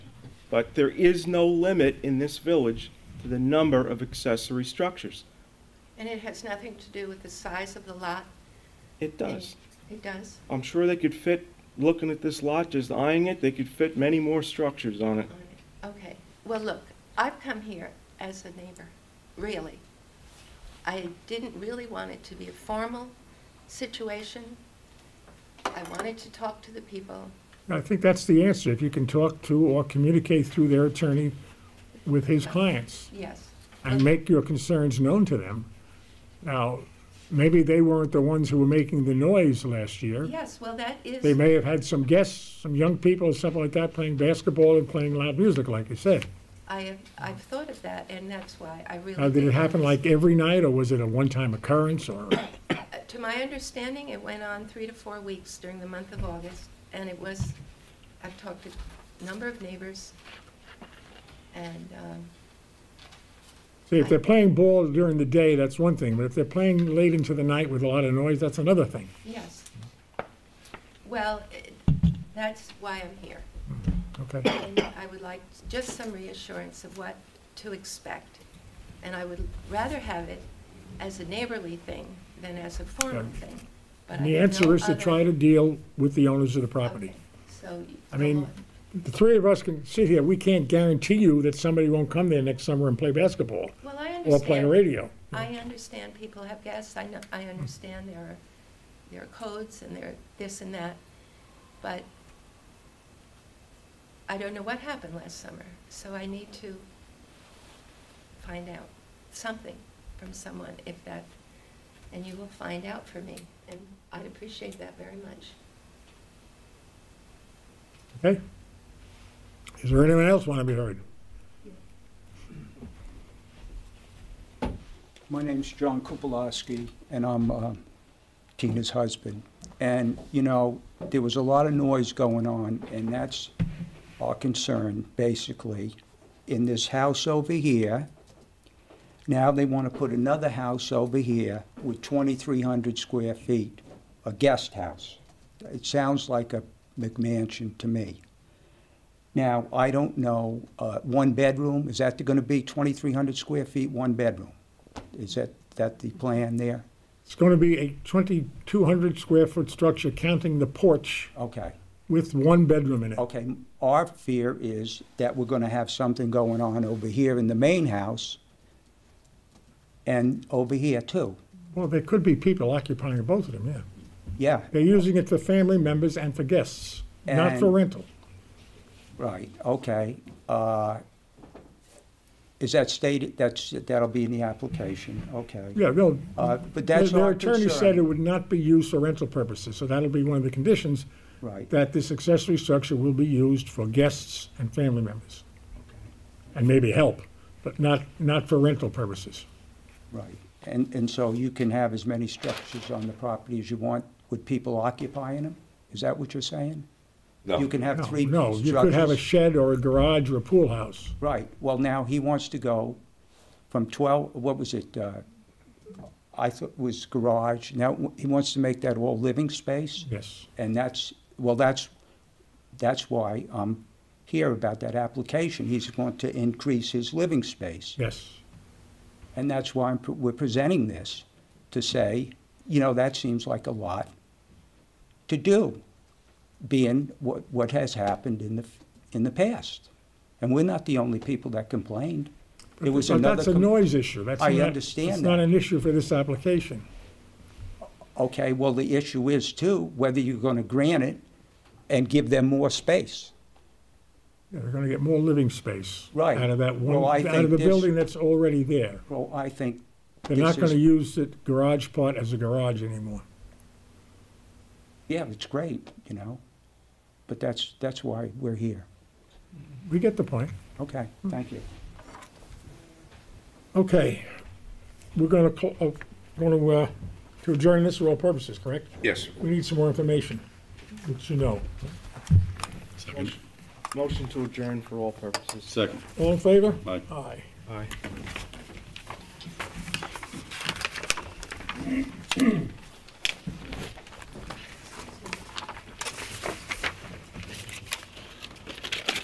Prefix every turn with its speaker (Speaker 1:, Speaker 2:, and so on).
Speaker 1: But there is no limit in this village to the number of accessory structures.
Speaker 2: And it has nothing to do with the size of the lot?
Speaker 1: It does.
Speaker 2: It does?
Speaker 1: I'm sure they could fit, looking at this lot, just eyeing it, they could fit many more structures on it.
Speaker 2: Okay, well, look, I've come here as a neighbor, really. I didn't really want it to be a formal situation. I wanted to talk to the people.
Speaker 3: I think that's the answer, if you can talk to or communicate through their attorney with his clients
Speaker 2: Yes,
Speaker 3: and make your concerns known to them. Now, maybe they weren't the ones who were making the noise last year.
Speaker 2: yes, well, that is.
Speaker 3: They may have had some guests, some young people, or something like that, playing basketball and playing loud music, like you said.
Speaker 2: I have, I've thought of that, and that's why I really.
Speaker 3: Now, did it
Speaker 2: did
Speaker 3: happen
Speaker 2: this.
Speaker 3: like every night, or was it a one-time occurrence, or?
Speaker 2: Uh, To my understanding, it went on three to four weeks during the month of August, and it was, I've talked to a number of neighbors, and, um,
Speaker 3: See, if they're playing ball during the day, that's one thing, but if they're playing late into the night with a lot of noise, that's another thing.
Speaker 2: yes. Well, it- that's why I'm here,
Speaker 3: Mm-hmm. Okay,
Speaker 2: and I would like just some reassurance of what to expect. And I would rather have it as a neighborly thing than as a formal
Speaker 3: Yeah.
Speaker 2: thing. But
Speaker 3: and
Speaker 2: I
Speaker 3: the
Speaker 2: have
Speaker 3: answer
Speaker 2: no
Speaker 3: is to
Speaker 2: other-
Speaker 3: try to deal with the owners of the property.
Speaker 2: Okay, So. you-
Speaker 3: I mean, the three of us can sit here, we can't guarantee you that somebody won't come there next summer and play basketball
Speaker 2: Well, I understand.
Speaker 3: or play radio.
Speaker 2: I understand people have guests, I know, I understand there are, there are codes and there are this and that, but I don't know what happened last summer, so I need to find out something from someone if that, and you will find out for me, and I'd appreciate that very much.
Speaker 3: Okay? Is there anyone else want to be heard?
Speaker 4: My name's John Kupolowski, and I'm uh, Tina's husband. And, you know, there was a lot of noise going on, and that's our concern, basically. In this house over here, now they want to put another house over here with 2,300 square feet, a guest house. It sounds like a McMansion to me. Now, I don't know, uh, one bedroom, is that going to be 2,300 square feet, one bedroom? Is that, that the plan there?
Speaker 3: It's going to be a 2,200 square foot structure counting the porch
Speaker 4: Okay,
Speaker 3: with one bedroom in it.
Speaker 4: okay. Our fear is that we're gonna have something going on over here in the main house and over here too.
Speaker 3: Well, there could be people occupying both of them, yeah.
Speaker 4: Yeah,
Speaker 3: They're using it for family members and for guests, not for
Speaker 4: And-
Speaker 3: rental.
Speaker 4: right, okay. Uh, Is that stated, that's, that'll be in the application, okay.
Speaker 3: Yeah, no.
Speaker 4: Uh, but that's
Speaker 3: Their
Speaker 4: our
Speaker 3: attorney said
Speaker 4: concern.
Speaker 3: it would not be used for rental purposes, so that'll be one of the conditions.
Speaker 4: Right.
Speaker 3: That this accessory structure will be used for guests and family members. And maybe help, but not, not for rental purposes.
Speaker 4: Right, and, and so you can have as many structures on the property as you want with people occupying them? Is that what you're saying?
Speaker 5: No.
Speaker 4: You can have
Speaker 3: No,
Speaker 4: three
Speaker 3: No,
Speaker 4: structures?
Speaker 3: you could have a shed or a garage or a pool house.
Speaker 4: Right, well, now he wants to go from 12, what was it? uh, I thought it was garage, now he wants to make that all living space?
Speaker 3: Yes.
Speaker 4: And that's, well, that's, that's why I'm here about that application. He's going to increase his living space.
Speaker 3: Yes.
Speaker 4: And that's why I'm, pre- we're presenting this, to say, you know, that seems like a lot to do, being what, what has happened in the, in the past. And we're not the only people that complained. There was
Speaker 3: But
Speaker 4: another.
Speaker 3: that's a
Speaker 4: com-
Speaker 3: noise issue. That's
Speaker 4: I
Speaker 3: not-
Speaker 4: understand
Speaker 3: That's not
Speaker 4: that.
Speaker 3: an issue for this application.
Speaker 4: Okay, well, the issue is too, whether you're gonna grant it and give them more space.
Speaker 3: Yeah, They're gonna get more living space.
Speaker 4: Right.
Speaker 3: Out of that one,
Speaker 4: Well, I
Speaker 3: out
Speaker 4: think
Speaker 3: of the
Speaker 4: this-
Speaker 3: building that's already there.
Speaker 4: Well, I think.
Speaker 3: They're
Speaker 4: this
Speaker 3: not gonna
Speaker 4: is-
Speaker 3: use the garage part as a garage anymore.
Speaker 4: Yeah, it's great, you know, but that's, that's why we're here.
Speaker 3: We get the point.
Speaker 4: Okay, thank you.
Speaker 3: Okay, we're gonna, cl- uh, gonna, uh, to adjourn this for all purposes, correct?
Speaker 5: Yes.
Speaker 3: We need some more information, which you know.
Speaker 1: Motion to adjourn for all purposes.
Speaker 5: Second.
Speaker 3: All in favor?
Speaker 5: Aye.
Speaker 3: Aye.
Speaker 1: Aye.